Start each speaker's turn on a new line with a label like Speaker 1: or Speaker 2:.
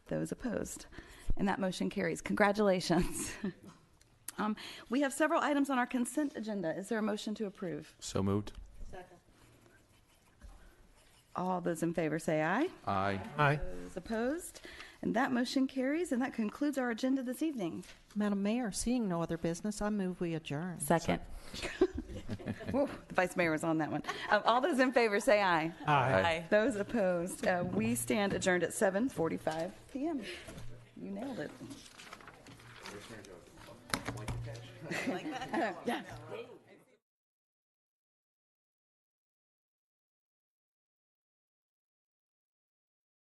Speaker 1: Those opposed? And that motion carries. Congratulations. Um, We have several items on our consent agenda. Is there a motion to approve?
Speaker 2: So moved.
Speaker 1: All those in favor say aye.
Speaker 2: Aye.
Speaker 3: Aye.
Speaker 1: Those opposed? And that motion carries, and that concludes our agenda this evening.
Speaker 4: Madam Mayor, seeing no other business, I move we adjourn.
Speaker 5: Second.
Speaker 1: Whoa, The vice mayor was on that one. Um, All those in favor say aye.
Speaker 3: Aye.
Speaker 1: Those opposed, uh, we stand adjourned at 7:45 PM. You nailed it.